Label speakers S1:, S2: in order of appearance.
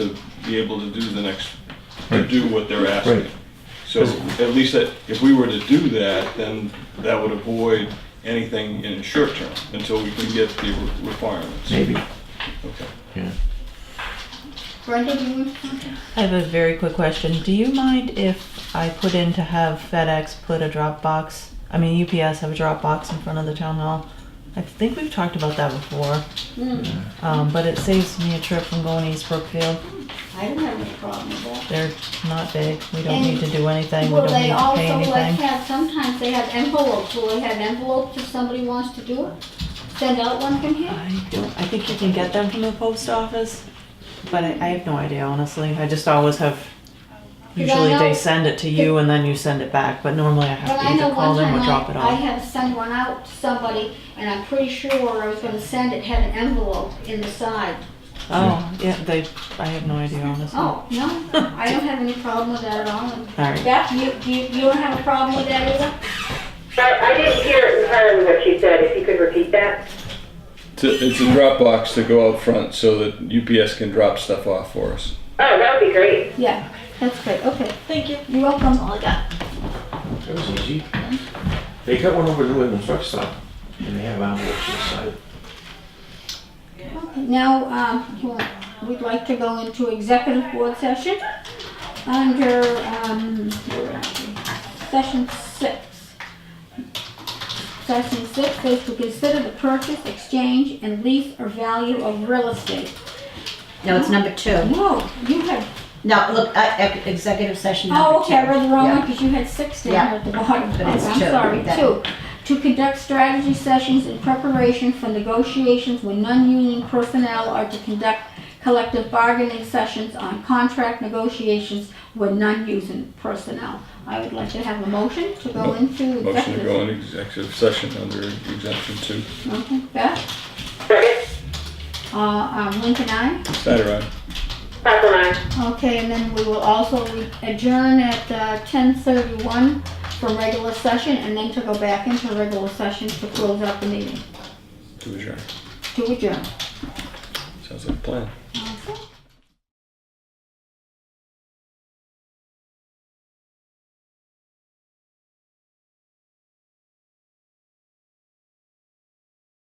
S1: to be able to do the next, to
S2: Right.
S1: do what they're
S2: Right.
S1: asking. So at least that, if we were to do that, then that would avoid anything in the short term until we can get the re- requirements.
S2: Maybe.
S1: Okay.
S2: Yeah.
S3: Brenda, do you want to?
S4: I have a very quick question. Do you mind if I put in to have FedEx put a drop box? I mean, UPS have a drop box in front of the town hall. I think we've talked about that before,
S3: Mm,
S4: um, but it saves me a trip from going to East Brookfield.
S3: I don't have any problem with that.
S4: They're not big. We don't need to do anything. We
S3: Well,
S4: don't need
S3: they
S4: to pay
S3: also like
S4: anything.
S3: have, sometimes they have envelopes, will they have envelopes if somebody wants to do it? Send out one from here?
S4: I don't- I think you can get them from the post office, but I, I have no idea, honestly. I just always have.
S3: I
S4: Usually
S3: know-
S4: they send it to you and then you send it back, but normally I
S3: But
S4: have to
S3: I know
S4: either call
S3: one
S4: them
S3: time
S4: or drop it
S3: I, I
S4: off.
S3: had to send one out to somebody, and I'm pretty sure I was gonna send it, had an envelope in the side.
S4: Oh, yeah, they, I have no idea, honestly.
S3: Oh, no, I don't have any problem with that at all. And
S4: All right.
S3: Beth, you, you, you don't have a problem with that either?
S5: I, I didn't hear entirely what she said, if you could repeat that.
S1: To- It's a drop box to go out front so that UPS can drop stuff off for us.
S5: Oh, that would be great.
S3: Yeah, that's great, okay. Thank you. You're welcome. All I got.
S2: That was easy. They got one over at the Whitman truck stop, and they have envelopes inside.
S3: Now, um, you want- we'd like to go into executive board session under, um, where are we? session six. Session six is to consider the purchase, exchange, and lease or value of real estate.
S6: No, it's number two.
S3: Whoa, you had,
S6: No, look, uh, ec- executive session number two.
S3: oh, okay, I read the wrong one
S6: Yeah.
S3: because you had six down
S6: Yeah.
S3: here at the bottom.
S6: But it's
S3: I'm
S6: two.
S3: sorry,
S6: That-
S3: two. To conduct strategy sessions in preparation for negotiations with non-union personnel or to conduct collective bargaining sessions on contract negotiations with non-union personnel. I would like to have a motion to go into
S1: Motion to go
S3: executive.
S1: into executive session under exemption two.
S3: Okay, Beth,
S5: Second,
S3: uh, um, Lincoln, aye?
S1: Snyder, aye.
S5: Pfeffer, aye.
S3: Okay, and then we will also adjourn at uh, 10:31 for regular session and then to go back into regular session to close out the meeting,
S1: to adjourn.
S3: to adjourn.
S1: Sounds like a plan.